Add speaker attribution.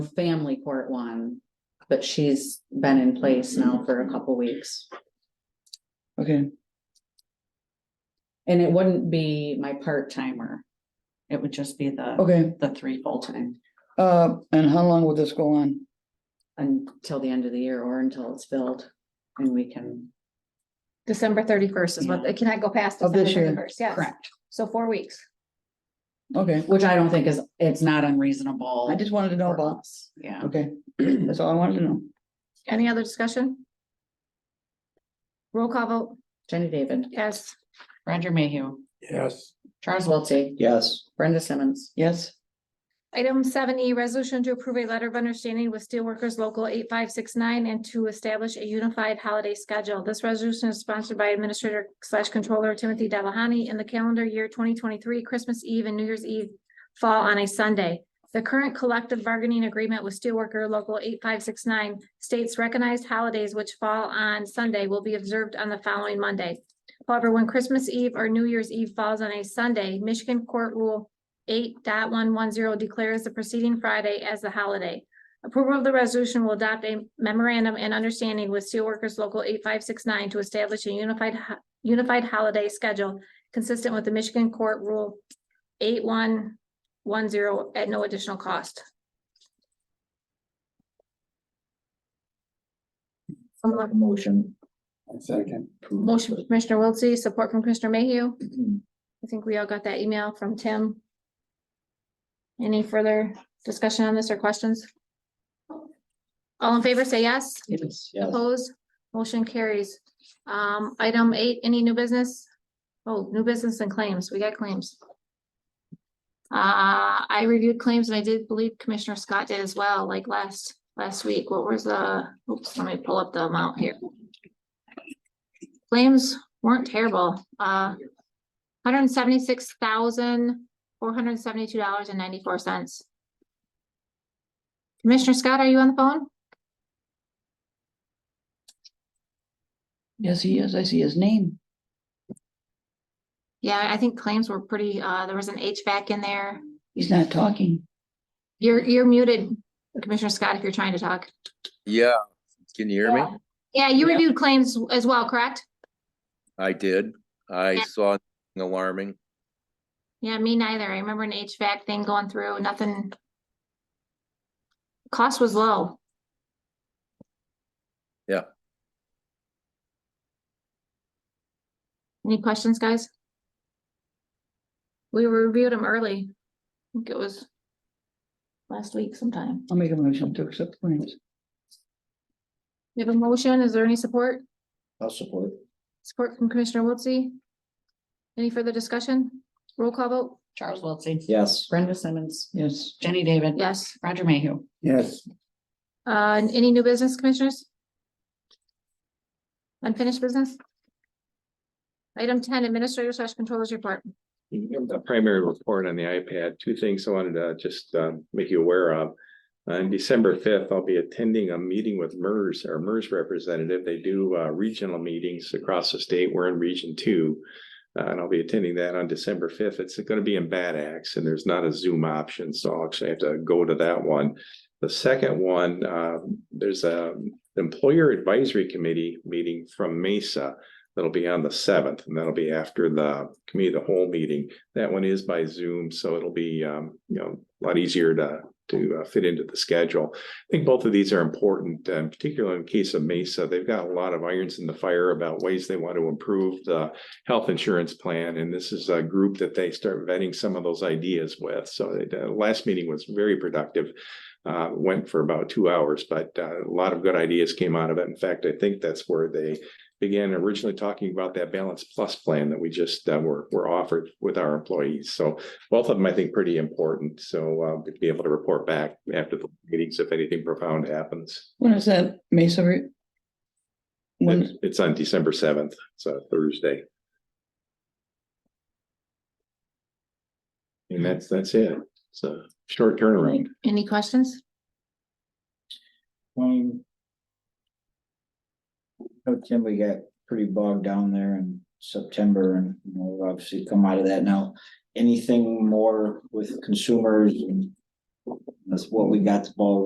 Speaker 1: family court one, but she's been in place now for a couple weeks.
Speaker 2: Okay,
Speaker 1: And it wouldn't be my Oh. part timer. It would just be the,
Speaker 2: okay,
Speaker 1: the three full time
Speaker 2: uh, and how long will this go on?
Speaker 1: until the end of the year or until it's filled and we can.
Speaker 3: December thirty-first is what, it cannot go past
Speaker 2: Of this
Speaker 3: December
Speaker 2: year.
Speaker 3: thirty-first, yes. So four weeks.
Speaker 2: Okay,
Speaker 1: Which I don't think is, it's not unreasonable.
Speaker 2: I just wanted to know
Speaker 1: for
Speaker 2: about,
Speaker 1: us. Yeah.
Speaker 2: okay, that's all I wanted to know.
Speaker 3: Any other discussion? Roll call vote,
Speaker 1: Jenny David,
Speaker 3: yes.
Speaker 1: Roger Mayhew,
Speaker 4: Yes.
Speaker 1: Charles Wiltie,
Speaker 4: Yes.
Speaker 1: Brenda Simmons.
Speaker 2: Yes,
Speaker 3: Item seven E, resolution to approve a letter of understanding with Steelworkers Local eight five six nine and to establish a unified holiday schedule. This resolution is sponsored by Administrator slash Controller Timothy Delahani in the calendar year twenty twenty-three, Christmas Eve and New Year's Eve fall on a Sunday. The current collective bargaining agreement with Steelworker Local eight five six nine states recognized holidays which fall on Sunday will be observed on the following Monday. However, when Christmas Eve or New Year's Eve falls on a Sunday, Michigan Court Rule eight declares the preceding Friday as the holiday. Approval of the resolution will adopt a memorandum and understanding with Steelworkers Local eight five six nine to establish a unified ho- unified holiday schedule consistent with the Michigan Court Rule eight one one zero at no additional cost.
Speaker 4: Motion. Second.
Speaker 3: Motion from Commissioner Wiltse, support from Commissioner Mayhew. I think we all got that email from Tim. Any further discussion on this or questions? All in favor, say yes.
Speaker 2: yes,
Speaker 4: Yes.
Speaker 3: Opposed, motion carries. Um, item eight, any new business? Oh, new business and claims, we got claims. Uh, I reviewed claims and I did believe Commissioner Scott did as well, like last, last week, what was the, oops, let me pull up the amount here. Claims weren't terrible, uh, hundred and seventy-six thousand, four hundred and seventy-two dollars and ninety-four cents. Commissioner Scott, are you on the phone?
Speaker 2: yes, he is, I see his name.
Speaker 3: Yeah, I think claims were pretty, uh, there was an HVAC in there.
Speaker 2: He's not talking.
Speaker 3: You're, you're muted, Commissioner Scott, if you're trying to talk.
Speaker 5: Yeah, can you hear me?
Speaker 3: Yeah, you
Speaker 1: Yeah.
Speaker 3: reviewed claims as well, correct?
Speaker 5: I did. I
Speaker 3: Yeah.
Speaker 5: saw nothing alarming.
Speaker 3: Yeah, me neither. I remember an HVAC thing going through, nothing. Cost was low.
Speaker 5: Yeah.
Speaker 3: Any questions, guys? We reviewed them early. I think it was last week sometime.
Speaker 2: I'll make a motion to accept claims.
Speaker 3: We have a motion. Is there any support?
Speaker 4: I'll support.
Speaker 3: Support from Commissioner Wiltse. Any further discussion? Roll call vote?
Speaker 1: Charles Wiltie,
Speaker 4: Yes.
Speaker 1: Brenda Simmons,
Speaker 2: Yes,
Speaker 1: Jenny David.
Speaker 3: Yes.
Speaker 1: Roger Mayhew.
Speaker 4: Yes.
Speaker 3: Uh, and any new business commissioners? Unfinished business? Item ten, Administrator slash Controllers Report.
Speaker 6: A primary report on the iPad, two things I wanted to just um, make you aware of. On December fifth, I'll be attending a meeting with MERS, our MERS representative. They do uh, regional meetings across the state. We're in Region Two. Uh, And I'll be attending that on December fifth. It's gonna be in Bad Axe and there's not a Zoom option, so I'll actually have to go to that one. The second one, uh, there's a Employer Advisory Committee meeting from Mesa. That'll be on the seventh and that'll be after the committee, of the whole meeting. That one is by Zoom, so it'll be, um, you know, a lot easier to, to uh, fit into the schedule. I think both of these are important, uh, particularly in case of Mesa. They've got a lot of irons in the fire about ways they want to improve the health insurance plan, and this is a group that they start vetting some of those ideas with. So they- the last meeting was very productive. Uh, went for about two hours, but uh, a lot of good ideas came out of it. In fact, I think that's where they began originally talking about that balance plus plan that we just uh, were were offered with our employees. So both of them, I think, pretty important. So uh, we'd be able to report back after the meetings if anything profound happens.
Speaker 2: when is that, Mesa? re- When,
Speaker 6: It's it's on December seventh, it's a Thursday. And that's, that's it. It's a short turnaround.
Speaker 3: Any questions?
Speaker 4: Um. oh, Tim, we got pretty bogged down there in September and you know, we've obviously come out of that now. Anything more with consumers? and That's what we got the ball